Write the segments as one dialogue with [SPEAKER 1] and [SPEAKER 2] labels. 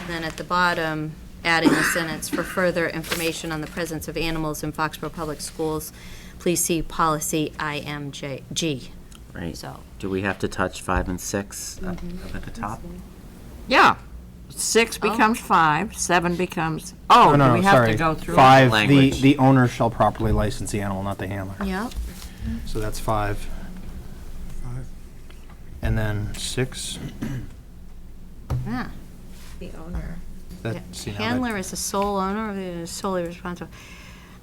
[SPEAKER 1] And then at the bottom, adding the sentence, "For further information on the presence of animals in Foxborough Public Schools, please see policy IMG."
[SPEAKER 2] Right.
[SPEAKER 1] So-
[SPEAKER 2] Do we have to touch five and six up up at the top?
[SPEAKER 3] Yeah. Six
[SPEAKER 4] Oh.
[SPEAKER 3] becomes five, seven becomes, oh,
[SPEAKER 5] No,
[SPEAKER 3] do
[SPEAKER 5] no,
[SPEAKER 3] we
[SPEAKER 5] no,
[SPEAKER 3] have to
[SPEAKER 5] sorry.
[SPEAKER 3] go through?
[SPEAKER 5] Five, the,
[SPEAKER 2] Language.
[SPEAKER 5] the owner shall properly license the animal, not the handler.
[SPEAKER 1] Yep.
[SPEAKER 5] So that's five. And then six,
[SPEAKER 1] Yeah.
[SPEAKER 4] The owner.
[SPEAKER 5] that, see now that-
[SPEAKER 1] Handler is the sole owner, or is solely responsible.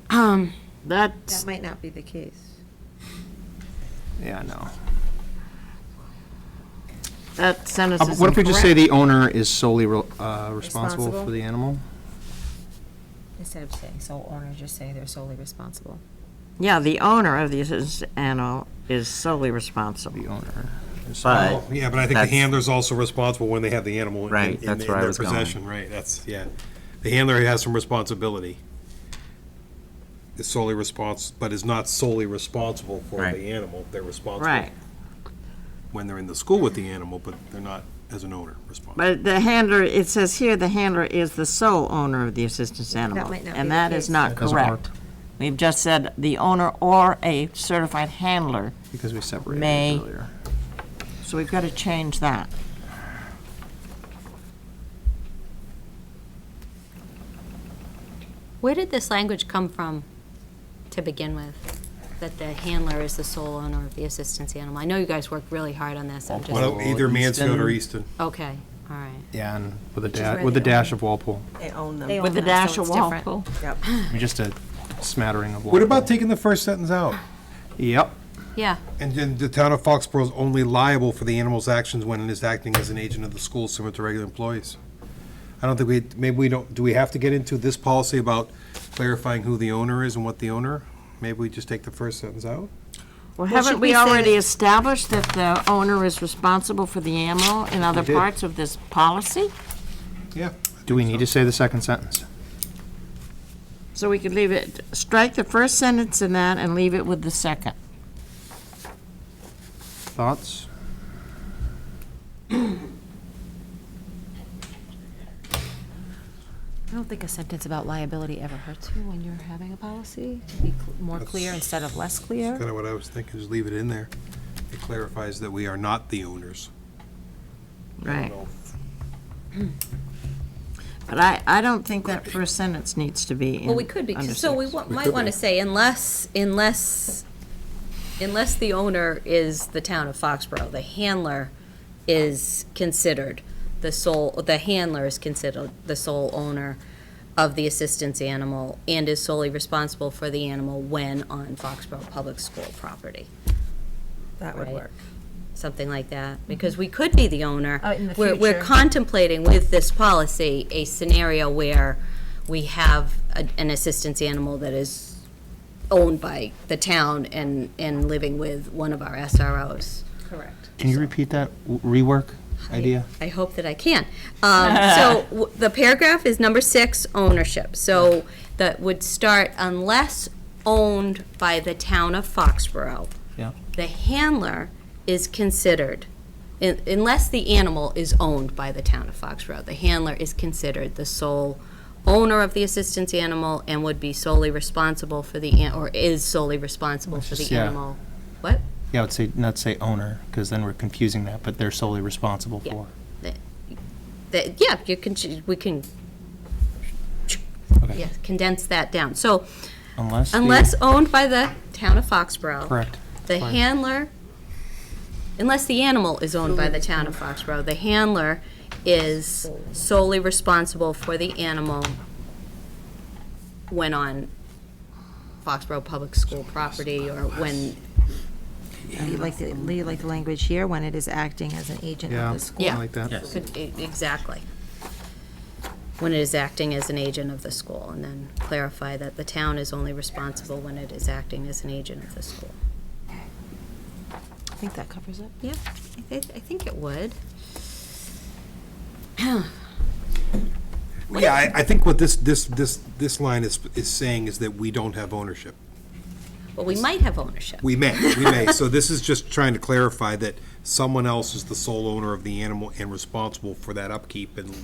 [SPEAKER 1] Um,
[SPEAKER 4] That
[SPEAKER 3] That's,
[SPEAKER 4] might not be the case.
[SPEAKER 5] Yeah, no.
[SPEAKER 3] that sentence
[SPEAKER 5] Uh,
[SPEAKER 3] is
[SPEAKER 5] What if we just say
[SPEAKER 3] incorrect.
[SPEAKER 5] the owner is solely re- uh, responsible
[SPEAKER 4] Responsible.
[SPEAKER 5] for the animal?
[SPEAKER 4] Instead of saying sole owner, just say they're solely responsible.
[SPEAKER 3] Yeah, the owner of the assistance animal is solely responsible.
[SPEAKER 5] The owner. is-
[SPEAKER 2] But,
[SPEAKER 6] Yeah, but I think the
[SPEAKER 2] That's-
[SPEAKER 6] handler's also responsible when they have the animal in-
[SPEAKER 2] Right,
[SPEAKER 6] in in
[SPEAKER 2] that's where I
[SPEAKER 6] their
[SPEAKER 2] was going.
[SPEAKER 6] possession, right, that's, yeah. The handler has some responsibility. Is solely respons, but is not solely responsible for
[SPEAKER 2] Right.
[SPEAKER 6] the animal, they're responsible
[SPEAKER 3] Right.
[SPEAKER 6] when they're in the school with the animal, but they're not, as an owner, responsible.
[SPEAKER 3] But the handler, it says here, the handler is the sole owner of the assistance animal.
[SPEAKER 4] might not be
[SPEAKER 3] And
[SPEAKER 4] the
[SPEAKER 3] that is
[SPEAKER 4] case.
[SPEAKER 3] not
[SPEAKER 5] That doesn't work.
[SPEAKER 3] correct. We've just said the owner or a certified handler,
[SPEAKER 5] Because we separated
[SPEAKER 3] May.
[SPEAKER 5] it earlier.
[SPEAKER 3] so we've got to change that.
[SPEAKER 1] Where did this language come from to begin with? That the handler is the sole owner of the assistance animal? I know you guys worked really hard on this, I'm just,
[SPEAKER 6] Well, Either Mansfield or Easton.
[SPEAKER 1] okay, all right.
[SPEAKER 5] Yeah, and with a
[SPEAKER 4] is
[SPEAKER 5] dash,
[SPEAKER 4] where
[SPEAKER 5] with a
[SPEAKER 4] they are.
[SPEAKER 5] dash of Walpole.
[SPEAKER 4] They own them.
[SPEAKER 3] With the dash of Walpole.
[SPEAKER 5] I mean, just a smattering of Walpole.
[SPEAKER 6] What about taking the first sentence out?
[SPEAKER 5] Yep.
[SPEAKER 1] Yeah,
[SPEAKER 6] And then the town of Foxborough is only liable for the animal's actions when it is acting as an agent of the school similar to regular employees. I don't think we, maybe we don't, do we have to get into this policy about clarifying who the owner is and what the owner? Maybe we just take the first sentence out?
[SPEAKER 3] Well,
[SPEAKER 4] Well,
[SPEAKER 3] haven't
[SPEAKER 4] should
[SPEAKER 3] we
[SPEAKER 4] we say
[SPEAKER 3] already
[SPEAKER 4] that-
[SPEAKER 3] established that the owner is responsible for the animal in other
[SPEAKER 6] did.
[SPEAKER 3] parts of this policy?
[SPEAKER 6] Yeah.
[SPEAKER 5] Do we need to say the second sentence?
[SPEAKER 3] So we could leave it, strike the first sentence in that and leave it with the second.
[SPEAKER 5] Thoughts?
[SPEAKER 7] I don't think a sentence about liability ever hurts you when you're having a policy, to be cl- more clear instead of less clear.
[SPEAKER 6] Kind of what I was thinking, just leave it in there. It clarifies that we are not the owners.
[SPEAKER 3] Right. But I, I don't think that first sentence needs to be in.
[SPEAKER 1] well, we could be,
[SPEAKER 3] under
[SPEAKER 1] so we
[SPEAKER 3] six.
[SPEAKER 1] wa- might want to say unless, unless, unless the owner is the town of Foxborough, the handler is considered the sole, the handler is considered the sole owner of the assistance animal and is solely responsible for the animal when on Foxborough Public School property.
[SPEAKER 4] That would
[SPEAKER 1] Right.
[SPEAKER 4] work.
[SPEAKER 1] something like that, because we could be the owner.
[SPEAKER 7] Uh, Mm-hmm. in the
[SPEAKER 1] We're- We're
[SPEAKER 7] future.
[SPEAKER 1] contemplating with this policy a scenario where we have a- an assistance animal that is owned by the town and, and living with one of our SROs.
[SPEAKER 4] Correct.
[SPEAKER 5] Can you repeat that W- rework idea?
[SPEAKER 1] I hope that I can. Um, so w- the paragraph is number six, ownership. So that would start unless owned by the town of Foxborough.
[SPEAKER 5] Yeah.
[SPEAKER 1] The handler is considered, un- unless the animal is owned by the town of Foxborough, the handler is considered the sole owner of the assistance animal and would be solely responsible for the, an- or is solely responsible for
[SPEAKER 5] just-
[SPEAKER 1] the
[SPEAKER 5] yeah.
[SPEAKER 1] animal. What?
[SPEAKER 5] Yeah, I would say, not say owner, because then we're confusing that, but they're solely responsible
[SPEAKER 1] Yeah.
[SPEAKER 5] for.
[SPEAKER 1] That- Yeah, you can, ch- we can,
[SPEAKER 5] Okay.
[SPEAKER 1] yeah, condense that down. So
[SPEAKER 5] Unless. the-
[SPEAKER 1] Unless owned by the town of Foxborough,
[SPEAKER 5] Correct.
[SPEAKER 1] the handler, unless the animal is owned by the town of Foxborough, the handler is solely responsible for the animal when on Foxborough Public School property or when,
[SPEAKER 4] You like the, you like the language here, when it is acting as an agent
[SPEAKER 5] Yeah,
[SPEAKER 4] of the school.
[SPEAKER 5] something like that.
[SPEAKER 1] could- e- exactly. When it is acting as an agent of the school, and then clarify that the town is only responsible when it is acting as an agent of the school.
[SPEAKER 7] I think that covers it.
[SPEAKER 1] Yeah, I, th- I think it would.
[SPEAKER 6] Yeah, I, I think what this, this, this, this line is, is saying is that we don't have ownership.
[SPEAKER 1] Well, we might have ownership.
[SPEAKER 6] We may, we may. So this is just trying to clarify that someone else is the sole owner of the animal and responsible for that upkeep and